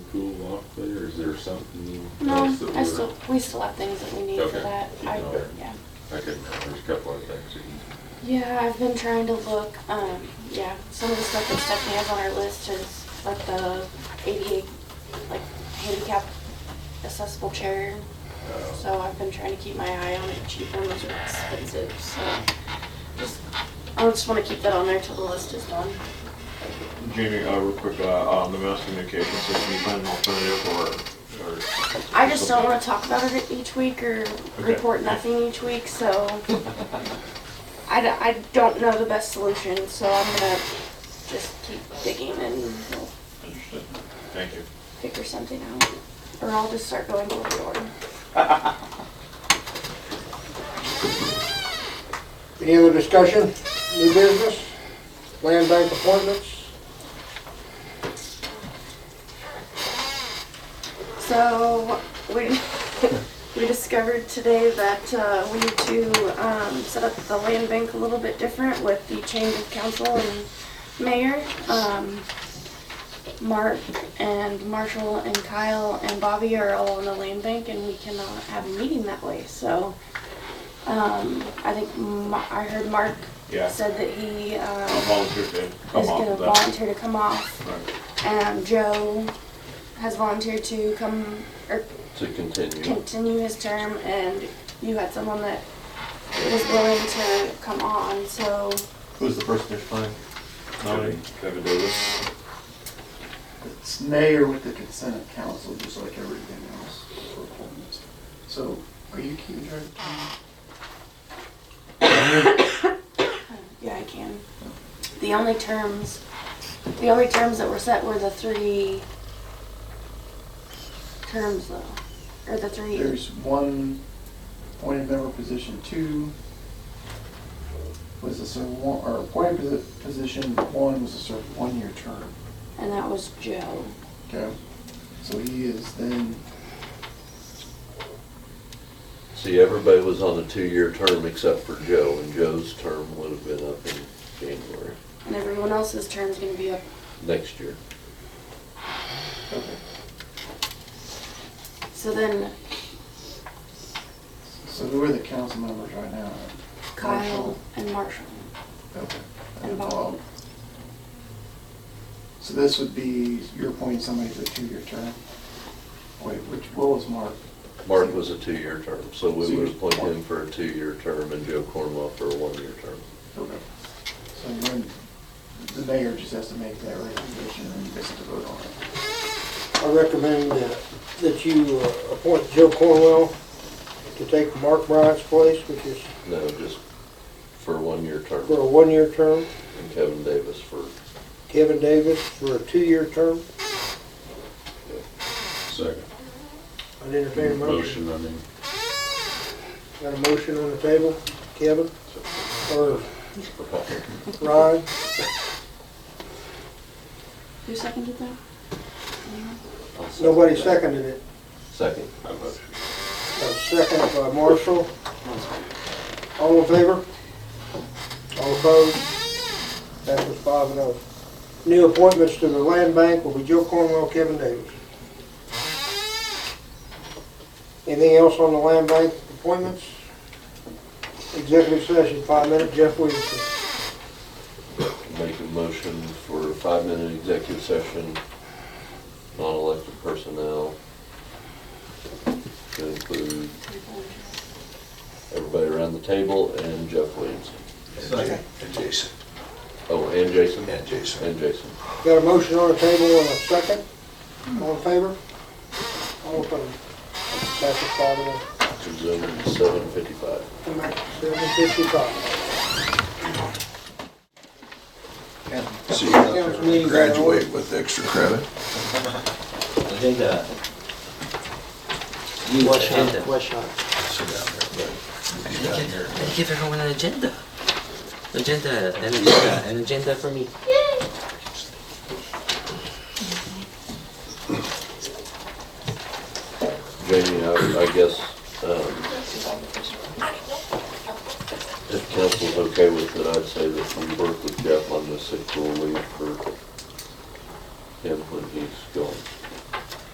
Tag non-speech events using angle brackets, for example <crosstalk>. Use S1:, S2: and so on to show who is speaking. S1: cool off there, or is there something
S2: No,
S1: else that
S2: I
S1: we're?
S2: still, we still have things that we need for
S1: Okay,
S2: that.
S1: keep
S2: I,
S1: going.
S2: yeah.
S1: I couldn't remember, there's a couple of things. that you-
S2: Yeah, I've been trying to look, um, yeah, some of the stuff that Stephanie has on her list is like the ADA, like handicap accessible chair. So I've been trying to keep my eye on it, cheap ones are expensive, so just, I just wanna keep that on there till the list is done.
S3: Jamie, uh, real quick, uh, on the mass communication system, you find an alternative or, or?
S2: I just don't wanna talk about it each week or report nothing each week, so. I, d- I don't know the best solution, so I'm gonna just keep digging and we'll
S3: Understood. Thank you.
S2: figure something out, or I'll just start going over the order.
S4: Any other discussion? New business? Land bank appointments?
S2: So we <laughs> we discovered today that uh, we need to um, set up the land bank a little bit different with the change of council and mayor. Um, Mark and Marshall and Kyle and Bobby are all on the land bank, and we cannot have a meeting that way. So um, I think Ma- I heard Mark
S3: Yeah,
S2: said that he
S3: I'll
S2: um,
S3: volunteer to
S2: is
S3: come off
S2: going to
S3: of that.
S2: volunteer to come off.
S3: Right.
S2: Um, Joe has volunteered to come or
S1: To continue.
S2: continue his term, and you had someone that was willing to come on. So
S3: Who's the person you're finding? Nominee? Kevin Davis.
S5: It's mayor with the consent of council, just like everything else for appointments. So are you keeping track of time?
S2: yeah, I can. The only terms, the only terms that were set were the three terms, though, or the three.
S5: There's one appointed member position, two was a serve one, or appointed posi- position, one was a serve one-year term.
S2: And that was Joe.
S5: Okay? So he is then,
S6: See, everybody was on a two-year term except for Joe, and Joe's term would have been up in January
S2: And everyone else's term's gonna be up.
S6: next year.
S5: okay,
S2: So then
S5: so who are the council members right now?
S2: Kyle
S5: Marshall.
S2: and Marshall.
S5: Okay.
S2: And Bob.
S5: So this would be, you're appointing somebody for a two-year term? Wait, which, what was Mark?
S6: Mark was a two-year term, so we would appoint him for a two-year term and Joe Cornwell for a one-year term.
S5: Okay. So then, the mayor just has to make that recommendation and you guys have to vote on it.
S4: I recommend uh, that you uh, appoint Joe Cornwell to take Mark Bryant's place, which is
S6: No, just for a one-year term,
S4: for a one-year term,
S6: and Kevin Davis for,
S4: Kevin Davis for a two-year term.
S1: Second.
S4: I'd entertain a motion.
S1: Motion, I mean.
S4: Got a motion on the table, Kevin, or
S6: for Paul.
S4: Ryan?
S2: Who seconded that? Anyone?
S1: I'll second
S4: Nobody
S1: that.
S4: seconded it.
S6: Second.
S1: I motion.
S4: A second by Marshall. All in favor? All opposed? That was five and oh. New appointments to the land bank will be Joe Cornwell, Kevin Davis. Anything else on the land bank appointments? Executive session, five minutes, Jeff Williamson.
S6: Make a motion for a five-minute executive session, non-elected personnel. To include everybody around the table and Jeff Williamson.
S1: Second.
S7: And Jason,
S6: Oh, and Jason?
S7: and Jason.
S6: And Jason.
S4: Got a motion on the table and a second? All in favor? All opposed? That was five and oh.
S6: Zoom in seven fifty-five.
S4: Seven fifty-five.
S7: So you're not there to graduate with extra credit?
S8: I think, uh, you watch agenda.
S7: Sit down there, buddy. Be down here.
S8: I give everyone an agenda. Agenda, an agenda, an agenda for me.
S6: Jamie, I, I guess, um, if council's okay with it, I'd say that we work with Jeff on the sick rule leave for him when he's gone.